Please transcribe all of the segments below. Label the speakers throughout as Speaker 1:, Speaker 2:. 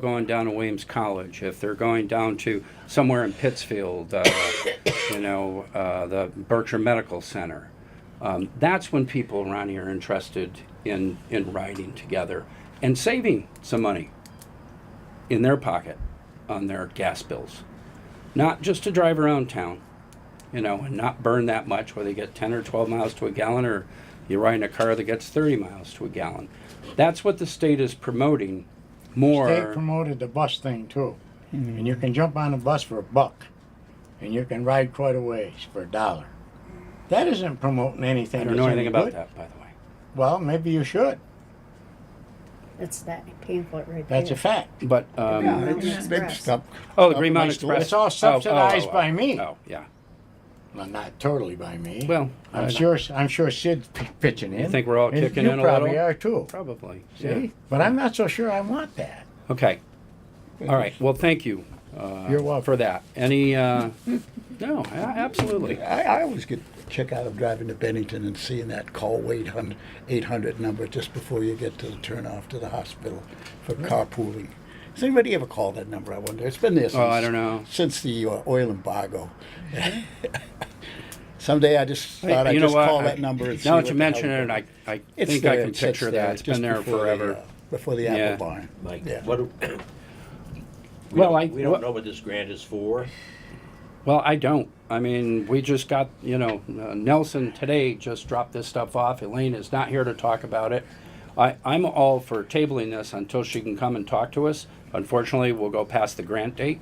Speaker 1: going down to Williams College, if they're going down to somewhere in Pittsfield, uh, you know, uh, the Berkshire Medical Center, um, that's when people around here are interested in, in riding together and saving some money in their pocket on their gas bills. Not just to drive around town, you know, and not burn that much, whether you get 10 or 12 miles to a gallon or you're riding a car that gets 30 miles to a gallon. That's what the state is promoting more.
Speaker 2: They promoted the bus thing too.
Speaker 1: Hmm.
Speaker 2: And you can jump on a bus for a buck. And you can ride quite a ways for a dollar. That isn't promoting anything.
Speaker 1: I don't
Speaker 2: that's
Speaker 1: know
Speaker 2: any
Speaker 1: anything about
Speaker 2: good.
Speaker 1: that, by the way.
Speaker 2: Well, maybe you should.
Speaker 3: That's that pamphlet right there.
Speaker 2: That's a fact.
Speaker 1: But, um,
Speaker 3: Yeah.
Speaker 4: They just- they
Speaker 3: Express.
Speaker 4: just stop-
Speaker 1: oh, the Green Mountain
Speaker 2: It's all
Speaker 1: Express. Oh, oh, oh,
Speaker 2: subsidized
Speaker 1: oh,
Speaker 2: by me.
Speaker 1: Oh, yeah.
Speaker 2: Well, not totally by me.
Speaker 1: Well, I-
Speaker 2: I'm sure. I'm sure Sid's p- pitching in.
Speaker 1: You think we're all
Speaker 2: And
Speaker 1: kicking
Speaker 2: you
Speaker 1: in a
Speaker 2: probably
Speaker 1: little?
Speaker 2: are too.
Speaker 1: Probably.
Speaker 2: See,
Speaker 1: Yeah.
Speaker 2: but I'm not so sure I want that.
Speaker 1: Okay. All right. Well, thank you. Uh,
Speaker 2: You're
Speaker 4: Oh.
Speaker 2: welcome.
Speaker 1: For that. Any, uh, no, a- absolutely.
Speaker 4: I, I always get a kick out of driving to Bennington and seeing that call wait hun- 800 number just before you get to the turnoff to the hospital for carpooling. Has anybody ever called that number? I wonder. It's been there since,
Speaker 1: Oh, I don't know.
Speaker 4: since the uh, oil embargo. Someday I just thought I,
Speaker 1: you know
Speaker 4: would just
Speaker 1: what?
Speaker 4: call
Speaker 1: I-
Speaker 4: that number. And see
Speaker 1: Now
Speaker 4: what
Speaker 1: that you
Speaker 4: the hell-
Speaker 1: mention it, I, I
Speaker 4: It's
Speaker 1: think
Speaker 4: there,
Speaker 1: I can
Speaker 4: it sits
Speaker 1: picture
Speaker 4: there,
Speaker 1: that. It's been
Speaker 4: just
Speaker 1: there
Speaker 4: before the,
Speaker 1: forever.
Speaker 4: uh, Before the
Speaker 1: Yeah.
Speaker 4: Apple Barn.
Speaker 5: Mike,
Speaker 4: Yeah.
Speaker 5: what, do- we
Speaker 1: Well, I-
Speaker 5: don't, we
Speaker 1: what-
Speaker 5: don't know what this grant is for.
Speaker 1: Well, I don't. I mean, we just got, you know, uh, Nelson today just dropped this stuff off. Elaine is not here to talk about it. I, I'm all for tabling this until she can come and talk to us. Unfortunately, we'll go past the grant date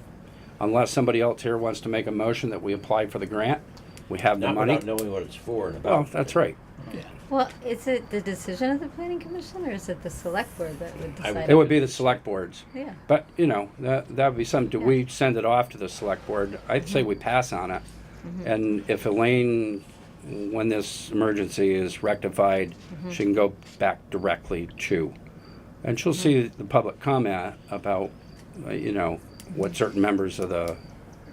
Speaker 1: unless somebody else here wants to make a motion that we apply for the grant. We have the
Speaker 5: Not
Speaker 1: money.
Speaker 5: without knowing what it's for and about.
Speaker 1: Well, that's right.
Speaker 6: Well, is it the decision of the planning commission or is it the select board that
Speaker 5: I
Speaker 6: would
Speaker 5: would-
Speaker 6: decide?
Speaker 1: It would be the select boards.
Speaker 6: Yeah.
Speaker 1: But, you know, that, that would be something, do we send it off to the select board? I'd say we
Speaker 3: Mm-hmm.
Speaker 1: pass on it. And if Elaine, when this emergency is rectified,
Speaker 3: Mm-hmm.
Speaker 1: she can go back directly to. And
Speaker 3: Mm-hmm.
Speaker 1: she'll see the public comment about, uh, you know,
Speaker 3: Mm-hmm.
Speaker 1: what certain members of the,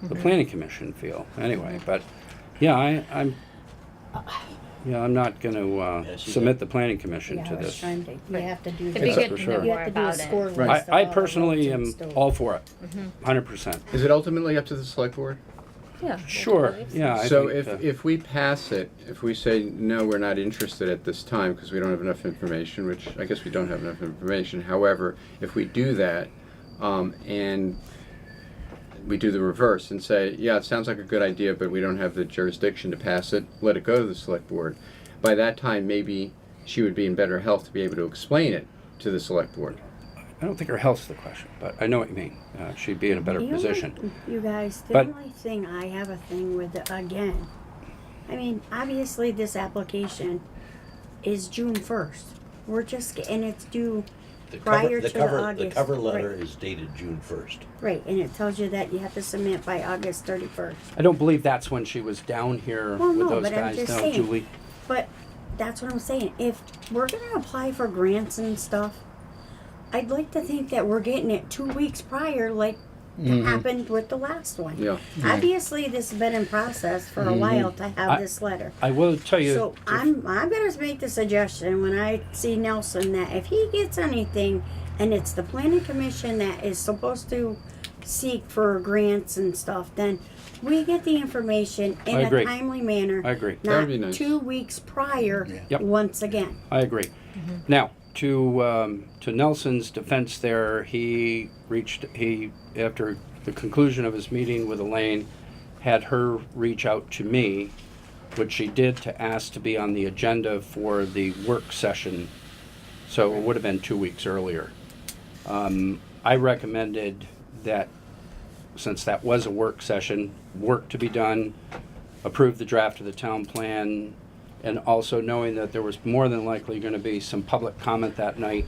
Speaker 1: the planning commission feel, anyway.
Speaker 3: Mm-hmm.
Speaker 1: But, yeah, I, I'm,
Speaker 3: Uh,
Speaker 1: yeah, I'm not gonna, uh,
Speaker 5: Yeah, she's
Speaker 1: submit the planning commission
Speaker 3: Yeah,
Speaker 1: to
Speaker 3: I was
Speaker 1: this.
Speaker 3: trying to- You have to do.
Speaker 6: It'd
Speaker 1: be
Speaker 3: the-
Speaker 1: good to know
Speaker 3: You have
Speaker 6: more
Speaker 3: to do a
Speaker 6: about it.
Speaker 3: score list.
Speaker 1: I,
Speaker 3: of
Speaker 1: I
Speaker 3: all the
Speaker 1: personally am
Speaker 3: relatives to-
Speaker 1: all for it,
Speaker 7: Mm-hmm.
Speaker 1: hundred percent.
Speaker 8: Is it ultimately up to the select board?
Speaker 6: Yeah.
Speaker 1: Sure, yeah. I
Speaker 8: So
Speaker 1: think,
Speaker 8: if,
Speaker 1: uh,
Speaker 8: if we pass it, if we say, no, we're not interested at this time because we don't have enough information, which I guess we don't have enough information. However, if we do that, um, and we do the reverse and say, yeah, it sounds like a good idea, but we don't have the jurisdiction to pass it, let it go to the select board. By that time, maybe she would be in better health to be able to explain it to the select board.
Speaker 1: I don't think her health's the question, but I know what you mean. Uh, she'd be in a better
Speaker 7: The only-
Speaker 1: position.
Speaker 7: You guys, the
Speaker 1: But-
Speaker 7: only thing I have a thing with, the- again, I mean, obviously this application is June first. We're just, get- and it's due,
Speaker 5: The cover-
Speaker 7: prior
Speaker 5: the
Speaker 7: to the
Speaker 5: cover- The
Speaker 7: August,
Speaker 5: cover
Speaker 7: right.
Speaker 5: letter is dated June first.
Speaker 7: right, and it tells you that you have to submit by August thirty-first.
Speaker 1: I don't believe that's when she was down here
Speaker 7: Well,
Speaker 1: with
Speaker 7: no,
Speaker 1: those
Speaker 7: but I'm
Speaker 1: guys,
Speaker 7: just
Speaker 1: no,
Speaker 7: saying.
Speaker 1: Julie?
Speaker 7: But that's what I'm saying. If we're gonna apply for grants and stuff, I'd like to think that we're getting it two weeks prior, like happened with the last one.
Speaker 8: Yeah.
Speaker 7: Obviously, this has been in process for a while to
Speaker 1: I-
Speaker 7: have this letter.
Speaker 1: I will tell you,
Speaker 7: So I'm I'm gonna make the suggestion when I see Nelson that if he gets anything, and it's the planning commission that is supposed to seek for grants and stuff, then we get the information in
Speaker 1: I
Speaker 7: a
Speaker 1: agree.
Speaker 7: timely manner.
Speaker 1: I agree.
Speaker 8: That would
Speaker 7: Not
Speaker 8: be nice.
Speaker 7: two weeks prior.
Speaker 1: Yep.
Speaker 7: Once again,
Speaker 1: I agree. Now, to, um, to Nelson's defense there, he reached, he, after the conclusion of his meeting with Elaine, had her reach out to me, which she did to ask to be on the agenda for the work session. So it would have been two weeks earlier. Um, I recommended that, since that was a work session, work to be done, approve the draft of the town plan, and also knowing that there was more than likely gonna be some public comment that night,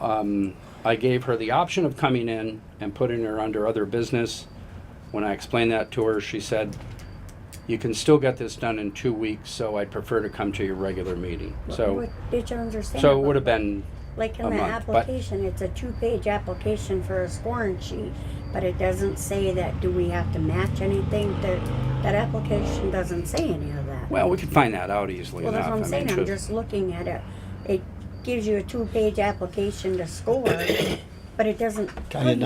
Speaker 1: um, I gave her the option of coming in and putting her under other business. When I explained that to her, she said, you can still get this done in two weeks, so I'd prefer to come to your regular meeting. So,
Speaker 7: what did you understand?
Speaker 1: so it
Speaker 7: about
Speaker 1: would have
Speaker 7: that?
Speaker 1: been
Speaker 7: like
Speaker 1: a
Speaker 7: in the
Speaker 1: month, but-
Speaker 7: application, it's a two-page application for a scoring sheet, but it doesn't say that. Do we have to match anything? That that application doesn't say any of that.
Speaker 1: Well, we could find that out easily
Speaker 7: Well, that's
Speaker 1: enough.
Speaker 7: what I'm
Speaker 1: I
Speaker 7: saying,
Speaker 1: mean,
Speaker 7: I'm
Speaker 1: just-
Speaker 7: just looking at it, it gives you a two-page application to score,
Speaker 2: but it doesn't.
Speaker 7: Kinda
Speaker 2: put